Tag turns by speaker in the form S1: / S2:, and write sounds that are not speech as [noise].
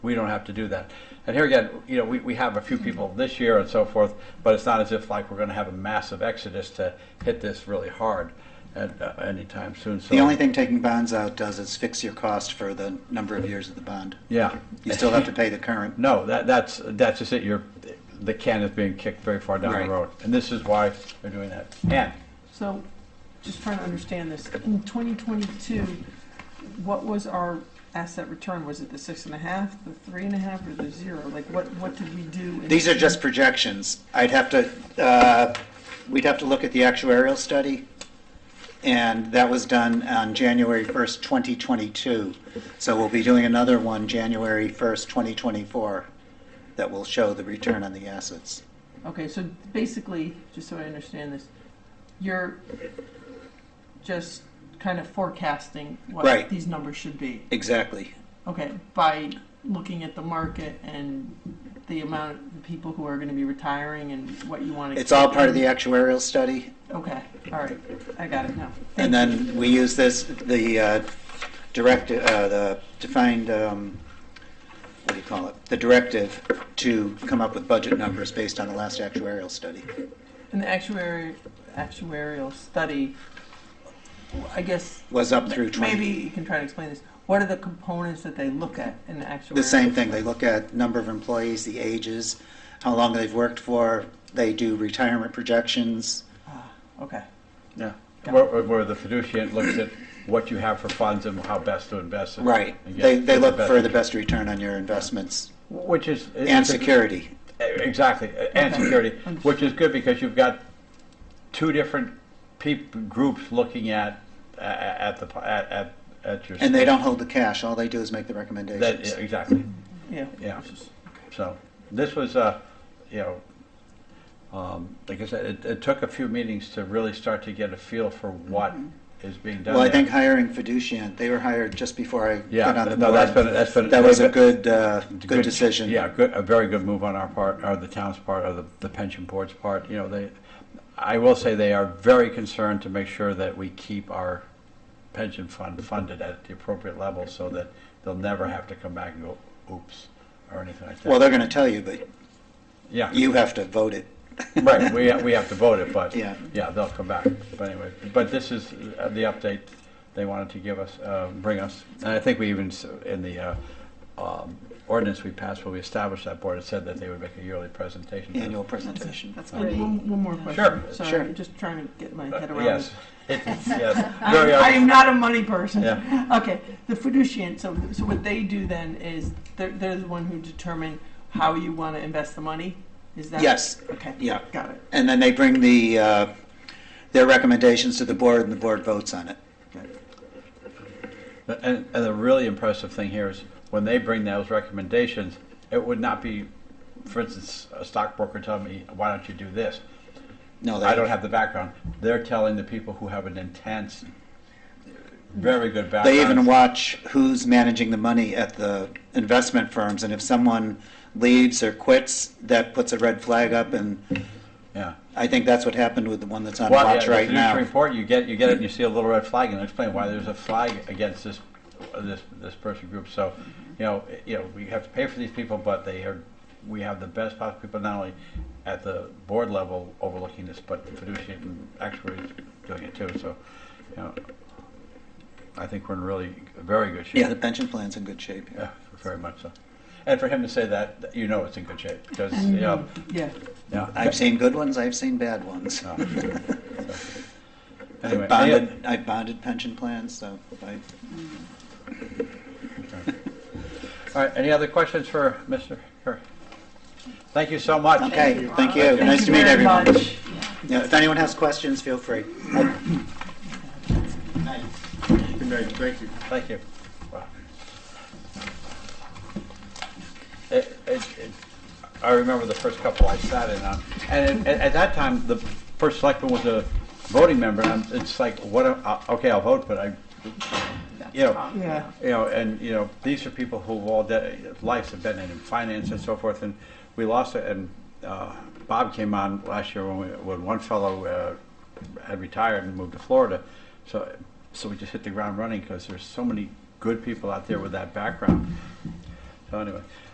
S1: we don't have to do that. And here again, you know, we, we have a few people this year and so forth, but it's not as if like we're gonna have a massive exodus to hit this really hard at, uh, anytime soon, so.
S2: The only thing taking bonds out does is fix your cost for the number of years of the bond.
S1: Yeah.
S2: You still have to pay the current.
S1: No, that, that's, that's just it, you're, the can is being kicked very far down
S2: Right.
S1: the road, and this is why they're doing that. And,
S3: So, just trying to understand this, in 2022, what was our asset return? Was it the six and a half, the three and a half, or the zero? Like, what, what did we do? in-
S2: These are just projections. I'd have to, uh, we'd have to look at the actuarial study, and that was done on January 1st, 2022. So we'll be doing another one January 1st, 2024, that will show the return on the assets.
S3: Okay, so basically, just so I understand this, you're just kind of forecasting
S2: Right.
S3: what these numbers should be.
S2: Exactly.
S3: Okay, by looking at the market and the amount of people who are going to be retiring and what you want to.
S2: It's all part of the actuarial study,
S3: Okay, all right, I got it now.
S2: And
S3: Thank you.
S2: then we use this, the uh, direct, uh, the defined, um, what do you call it? The directive to come up with budget numbers based on the last actuarial study.
S3: And the actuary, actuarial study, I guess,
S2: Was up through 20.
S3: maybe you can try to explain this. What are the components that they look at in the actuarial?
S2: The same thing, they look at number of employees, the ages, how long they've worked for, they do retirement projections.
S3: Ah, Okay,
S1: yeah,
S3: Yeah.
S1: where, where the fiduciary looks at what you have for funds and how best to invest it.
S2: Right,
S1: and get
S2: they, they look for the
S1: return.
S2: best return on your investments
S1: Which is.
S2: and
S1: it's a-
S2: security.
S1: Exactly, Uh, and
S3: Okay.
S1: security,
S3: Understood.
S1: which is good because you've got two different peop, groups looking at, a- a- at the, at, at, at your.
S2: And they don't hold the cash, all they do is make the recommendations.
S1: That, yeah, exactly,
S3: yeah.
S1: yeah. So, this was, uh, you know, um, like I said, it, it took a few meetings to really start to get a feel for what
S3: Mm-hmm.
S1: is being done.
S2: Well, I
S1: there.
S2: think hiring Fiducian, they were hired just before I
S1: Yeah,
S2: got on the
S1: no,
S2: board.
S1: that's been- that's been-
S2: That was a good, uh, good decision.
S1: Yeah, good, a very good move on our part, or the town's part, or the, the pension board's part, you know, they, I will say they are very concerned to make sure that we keep our pension fund funded at the appropriate level so that they'll never have to come back and go, oops, or anything like that.
S2: Well, they're going to tell you, but
S1: Yeah,
S2: you have to vote it.
S1: right, we, we have to vote it, but,
S2: Yeah.
S1: yeah, they'll come back, but anyway, but this is uh, the update they wanted to give us, uh, bring us, and I think we even, s- in the, uh, um, ordinance we passed where we established that board, it said that they would make a yearly presentation. to us.
S2: Annual
S3: That's it.
S2: presentation.
S3: That's
S4: great.
S3: great. One, one more question.
S1: Sure,
S2: sure.
S3: Sorry, just trying to get my
S1: Uh,
S3: head around this.
S1: Yes, [laughs] yes. Very
S3: I am
S1: honest.
S3: not a money person.
S1: Yeah.
S3: Okay, the fiducian, so, so what they do then is, they're, they're the one who determine how you want to invest the money? Is that?
S2: Yes.
S3: Okay.
S2: Yeah.
S3: Got it.
S2: And then they bring the, uh, their recommendations to the board, and the board votes on it.
S3: Got it.
S1: And, and the really impressive thing here is when they bring those recommendations, it would not be, for instance, a stockbroker telling me, why don't you do this?
S2: No, they
S1: I don't have the background. They're telling the people who have an intense, very good background.
S2: They even watch who's managing the money at the investment firms, and if someone leaves or quits, that puts a red flag up, and
S1: Yeah.
S2: I think that's what happened with the one that's on
S1: Well, yeah,
S2: watch
S1: the
S2: right now.
S1: fiduciary report, you get, you get it and you see a little red flag and they explain why there's a flag against this, this, this person group. So, you know, i- you know, we have to pay for these people, but they are, we have the best possible people, not only at the board level overlooking this, but the fiduciary and actuaries doing it too. So, you know, I think we're in really very good shape.
S2: Yeah, the pension plan's in good shape.
S1: Yeah, very much so. And for him to say that, you know it's in good shape because, you know,
S3: Yeah,
S1: yeah.
S2: I've seen good ones, I've seen bad ones.
S1: Oh.
S2: I've
S1: Anyway, any oth-
S2: bonded, I've bonded pension plans, so I,
S1: All right, any other questions for Mr. Curry? Thank you so much.
S2: okay, thank you.
S4: Thank you
S2: Nice to meet
S3: very
S2: everyone.
S3: much.
S2: Yeah, If anyone has questions, feel free.
S5: Good night, thank you.
S1: Thank you. Wow. It- it- it- I remember the first couple I sat in on, and at, at that time, the first selectman was a voting member, and I'm- it's like, what, am- uh, okay, I'll vote, but I, you know,
S3: Yeah.
S1: you know, and, you know, these are people who all their lives have been in finance and so forth, and we lost it, and uh, Bob came on last year when, we, when one fellow uh, had retired and moved to Florida, so, so we just hit the ground running, because there's so many good people out there with that background. So anyway,